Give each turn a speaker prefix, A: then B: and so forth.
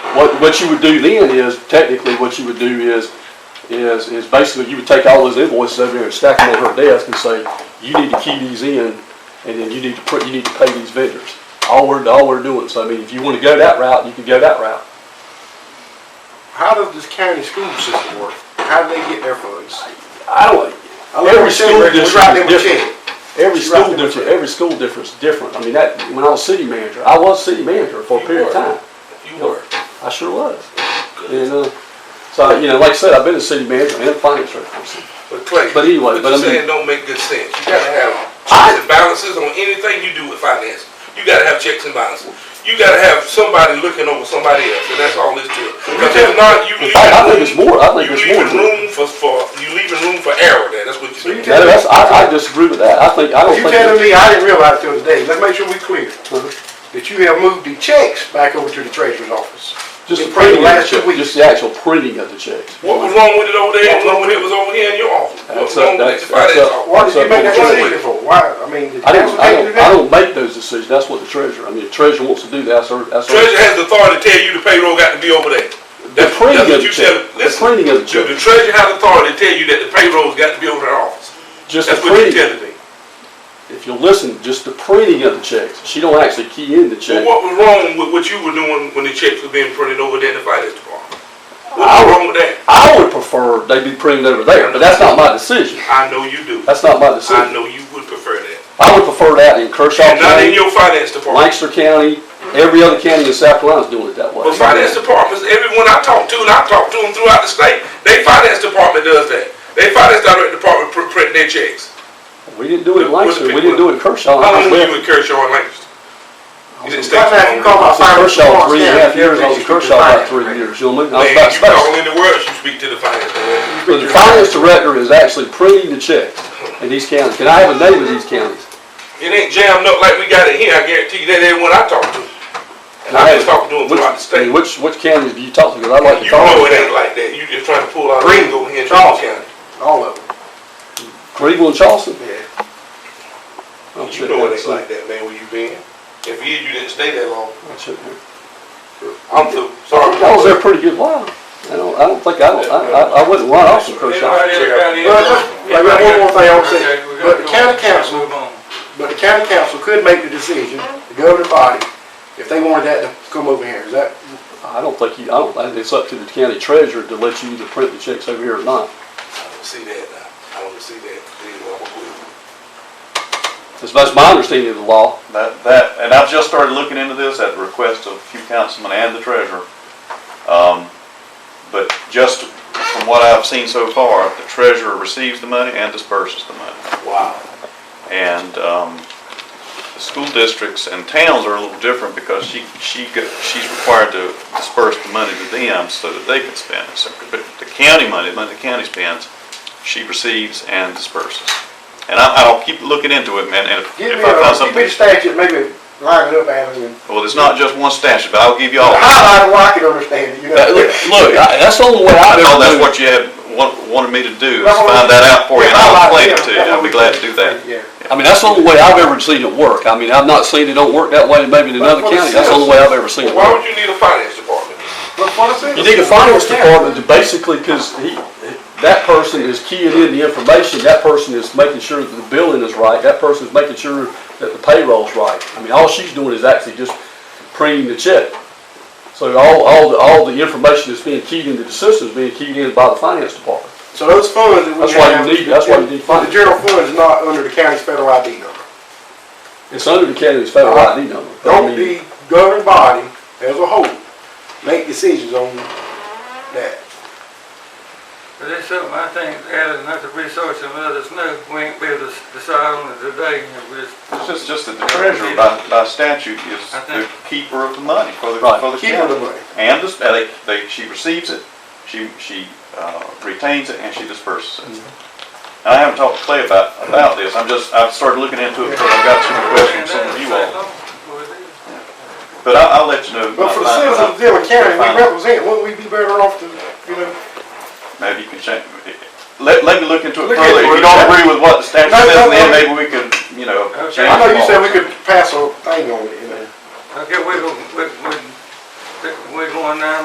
A: What, what you would do then is, technically, what you would do is, is, is basically you would take all those invoices over there and stack them on her desk and say, you need to key these in, and then you need to put, you need to pay these vendors. All we're, all we're doing, so I mean, if you wanna go that route, you can go that route.
B: How does this county school system work? How do they get their funds?
A: I don't,
B: I look at
A: every
B: the check
A: school
B: record, we write
A: district is
B: them a
A: different.
B: check.
A: Every
B: She write
A: school
B: them a
A: different,
B: check.
A: every school different's different. I mean, that, when I was city manager, I was city manager for a
C: You
A: period of
C: were.
A: time.
C: You were.
A: I sure was. And, uh, so, you know, like I said, I've been a city manager and a finance director.
C: But Clay,
A: But anyway,
C: what
A: but I
C: you're
A: mean-
C: saying don't make good sense. You gotta have checks and balances on anything you do with finance. You gotta have checks and balances. You gotta have somebody looking over somebody else, and that's all this to it. Because if not, you leaving.
A: I- I think it's more- I think
C: you
A: it's
C: leaving
A: more.
C: room for, for, you leaving room for error there, that's what
B: So
C: you
B: you
C: do.
B: tell-
A: Now, that's, I, I disagree with that. I think, I don't
B: You telling
A: think.
B: me, I didn't realize till today, let's make sure we clear,
A: Uh-huh.
B: that you have moved the checks back over to the treasurer's office.
A: Just the
B: In
A: printing of the
B: last two
A: check,
B: weeks.
A: just the actual printing of the checks.
C: What was wrong with it over there, and what when it was over here in your office? What was
A: That's up-
C: wrong with
A: that's-
C: the finance
A: that's up-
C: office?
B: Why did you make that
C: What's wrong
B: decision
C: with it?
B: for? Why, I mean, did
A: I don't,
B: council
A: I
B: can't
A: don't,
B: do
A: I
B: that?
A: don't make those decisions. That's what the treasurer, I mean, the treasurer wants to do that, that's her, that's her.
C: Treasurer has the authority to tell you the payroll got to be over there.
A: The
C: That's that's
A: printing
C: what
A: of the
C: you tell,
A: check, the
C: listen.
A: printing of the
C: Do the
A: check,
C: treasurer have authority to tell you that the payroll's got to be over their office?
A: just the
C: That's what you're
A: printing.
C: telling me.
A: If you listen, just the printing of the checks. She don't actually key in the
C: Well,
A: check.
C: what was wrong with what you were doing when the checks were being printed over there in the finance department? What
A: I
C: was
A: would-
C: wrong with that?
A: I would prefer they be printed over there, but that's not my decision.
C: I know you do.
A: That's not my
C: I
A: decision.
C: know you would prefer that.
A: I would prefer that in Kershaw
C: And not in
A: County,
C: your finance department.
A: Lancaster County, every other county in South Carolina's doing it that way.
C: But finance departments, everyone I talk to, and I talk to them throughout the state, they finance department does that. They finance direct department pr- print their checks.
A: We didn't do it in
C: Where's the
A: Lancaster, we
C: people
A: didn't do it in Kershaw.
C: How long
A: I was
C: were
A: there-
C: you in Kershaw and Lancaster? You didn't stay
B: Right now, if
C: too
B: you call
C: long.
B: my
A: I was in
B: finance
A: Kershaw
B: department,
A: three and a half years, I was in Kershaw about three
B: Right.
A: years, you know what I mean? I was
C: Man,
A: about
C: you call
A: space.
C: in the world, you speak to the finance director.
A: So the finance director is actually printing the checks in these counties. Can I have a name of these counties?
C: It ain't jammed up like we got it here, I guarantee you, that ain't what I talk to. And I've been talking to them
A: Which-
C: throughout the
A: I mean,
C: state.
A: Which, which counties do you talk to, 'Cause I'd like to
C: You
A: talk to
C: know it ain't like that, you just trying to pull out
B: Green,
C: Ringo here in
B: Charles.
C: Charles County.
B: All of them,
A: Greenville and Charleston?
B: yeah.
A: I'll check
C: You know
A: that
C: it ain't
A: soon.
C: like that, man, where you been. If you, you didn't stay that long,
A: I'll check that.
C: I'm so sorry.
A: I was there a pretty good while. I don't, I don't think, I don't, I, I- I wouldn't run off from Kershaw.
C: Anybody else got any-
B: Well, let's- wait, wait, one more thing I want to say,
C: Okay, we
B: but
C: gotta
B: the
C: go.
B: county council,
C: Move on.
B: but the county council could make the decision, the governing body, if they wanted that to come over here, is that,
A: I don't think you, I don't, I think it's up to the county treasurer to let you either print the checks over here or not.
C: I don't see that now, I don't see that, anyway, I'm gonna
A: That's, that's my understanding of the law.
D: That, that, and I've just started looking into this at the request of a few councilmen and the treasurer. Um, but just from what I've seen so far, the treasurer receives the money and disperses the money.
C: quit. Wow.
D: And, um, the school districts and towns are a little different because she, she, go- she's required to disperse the money to them so that they can spend it. So, But the county money, the money the county spends, she receives and disperses. And I, I'll keep looking into it, man, and if
B: give me,
D: if I
B: a-
D: find
B: give me
D: something.
B: the statute, maybe line it up, Alan, and
D: Well, it's not just one statute, but I'll give you all.
B: highlight it where I can understand it, you
D: Uh,
A: That-
B: know?
A: Uh, Look, look, I- that's the only way
D: I
A: I've ever
D: know that's
A: done it.
D: what you had, wa- wanted me to do, is
B: That's what we-
D: find that out for you, and I'll
B: highlight it,
D: explain it to you,
B: yeah,
D: I'll be glad to do that.
B: Yeah.
A: I mean, that's the only way I've ever seen it work. I mean, I've not seen it don't work that way maybe in another
B: But for the
A: county. That's the only way I've ever seen it
C: Why
A: work.
C: would you need a finance department?
B: But for the citizens.
A: You need a finance department to basically, because he, that person is keying in the information, that person is making sure that the billing is right, that person is making sure that the payroll's right. I mean, all she's doing is actually just printing the check. So all, all, the all the information that's being keyed into the system is being keyed in by the finance department.
B: So those funds that we have.
A: That's why you need- that's why you need
B: The
A: funds.
B: general fund is not under the county's federal ID number.
A: It's under the county's federal ID number. but I
B: Don't
A: mean-
B: the governing body as a whole make decisions on that.
E: But that's something I think added enough to research and let us know. We ain't be able to decide on it today. If we just-
D: It's just, just that the treasurer by, by statute is
E: I
D: the
E: think-
D: keeper of the money for the,
A: Right.
D: for the
B: Keeper of the
D: county.
B: money.
D: And this, they, they, she receives it, she, she, uh, retains it, and she disperses it.
B: Mm-hmm.
D: And I haven't talked to Clay about, about this, I'm just, I've started looking into it, because I've got some questions from some of you all. But I, I'll let you know.
B: But for the
D: my- my-
B: citizens of Dillon County,
D: my-
B: we represent, wouldn't we be better off to, you know?
D: Maybe you can check, let, let me look into it
B: Look
D: further,
B: into it.
D: if you don't agree with what the statute
B: No, no,
D: says, then
B: no.
D: maybe we could, you know.
E: Okay.
D: change
B: I know
D: the
B: you
D: law.
B: said we could pass a thing on it, you know?
E: Okay, we're, we're, we're going now